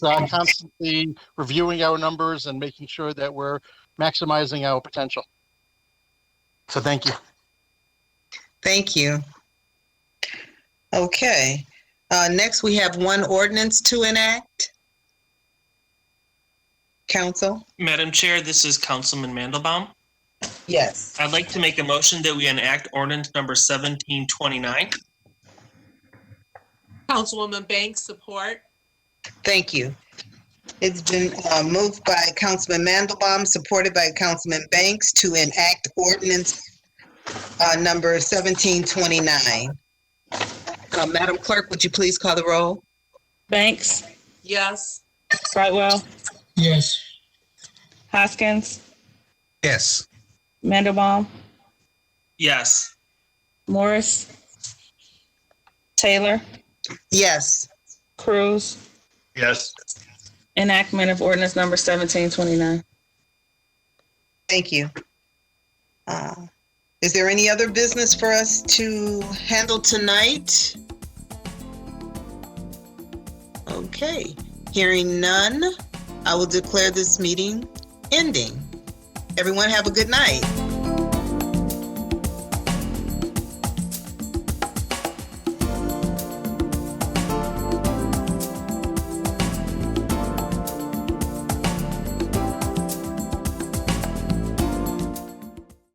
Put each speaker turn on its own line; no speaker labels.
uh, constantly reviewing our numbers and making sure that we're maximizing our potential. So thank you.
Thank you. Okay, uh, next we have one ordinance to enact. Council?
Madam Chair, this is Councilman Mandelbaum.
Yes.
I'd like to make a motion that we enact ordinance number 1729.
Councilwoman Banks, support.
Thank you. It's been, uh, moved by Councilman Mandelbaum, supported by Councilman Banks to enact ordinance, uh, number seventeen twenty-nine. Uh, Madam Clerk, would you please call the roll?
Banks,
Yes.
Brightwell,
Yes.
Hoskins,
Yes.
Mandelbaum,
Yes.
Morris, Taylor,
Yes.
Cruz.
Yes.
Enactment of ordinance number 1729.
Thank you. Uh, Is there any other business for us to handle tonight? Okay, hearing none, I will declare this meeting ending. Everyone have a good night.